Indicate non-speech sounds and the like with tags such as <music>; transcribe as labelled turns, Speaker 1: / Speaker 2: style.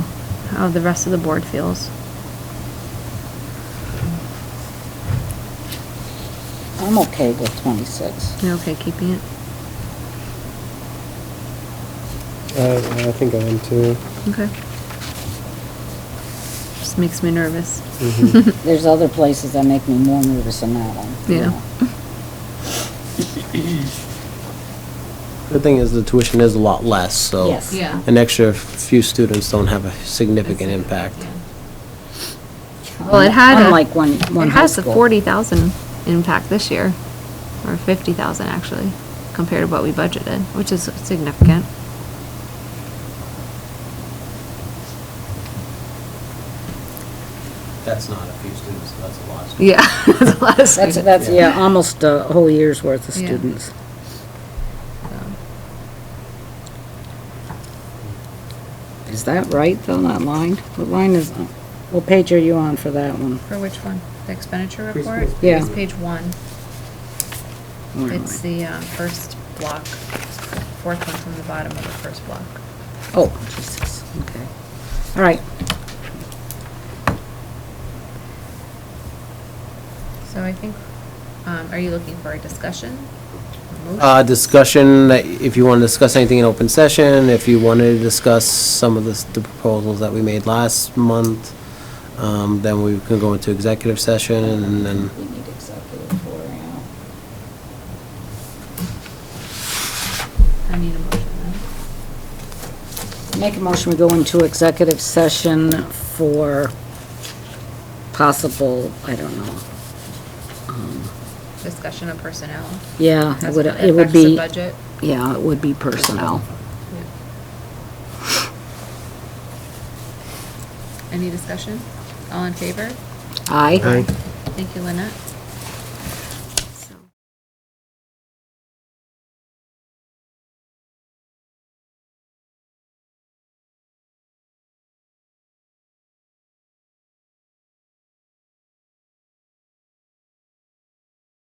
Speaker 1: how the rest of the board feels.
Speaker 2: I'm okay with
Speaker 1: <laughs>
Speaker 2: 26.
Speaker 1: You okay keeping it?
Speaker 3: Uh, I, I think I am too.
Speaker 1: Okay. Just makes me nervous.
Speaker 3: Mhm.
Speaker 2: There's other places that make me more nervous than that one. you
Speaker 1: Yeah.
Speaker 2: know.
Speaker 3: The thing is, the tuition is a lot less, so.
Speaker 2: Yes.
Speaker 4: Yeah.
Speaker 3: An extra few students don't have a significant impact.
Speaker 1: Well, it had a.
Speaker 2: Unlike one, one
Speaker 1: It
Speaker 2: high
Speaker 1: has a
Speaker 2: school.
Speaker 1: forty thousand impact this year, or fifty thousand actually, compared to what we budgeted, which is significant. <laughs>
Speaker 3: That's not a few students, that's a lot.
Speaker 1: Yeah, that's a lot <laughs> of
Speaker 2: That's,
Speaker 1: students.
Speaker 2: that's, yeah, almost a whole year's worth of
Speaker 1: Yeah.
Speaker 2: students. Is that right, though, that line? What line is, what page are you on for that one?
Speaker 4: For which one? The expenditure report?
Speaker 3: Preschool.
Speaker 2: Yeah.
Speaker 4: It's page one.
Speaker 2: Where am
Speaker 4: It's
Speaker 2: I?
Speaker 4: the um, first block, fourth one from the bottom of the first block.
Speaker 2: Oh, Jesus, okay. All right,
Speaker 4: So I think, um, are you looking for a discussion? A
Speaker 3: Uh,
Speaker 4: motion?
Speaker 3: discussion, like, if you want to discuss anything in open session, if you wanted to discuss some of the, s- the proposals that we made last month, um, then we can go into executive session and then,
Speaker 2: We need executive for now.
Speaker 4: I need a motion then.
Speaker 2: Make a motion, we go into executive session for possible, I don't know.
Speaker 4: Discussion of personnel.
Speaker 2: Yeah, it
Speaker 4: as
Speaker 2: would, it
Speaker 4: affects
Speaker 2: would
Speaker 4: the
Speaker 2: be,
Speaker 4: Budget.
Speaker 2: yeah, it would be personnel.
Speaker 4: Any discussion? All in favor?
Speaker 2: Aye?
Speaker 3: Aye.
Speaker 4: Thank you, Lynette.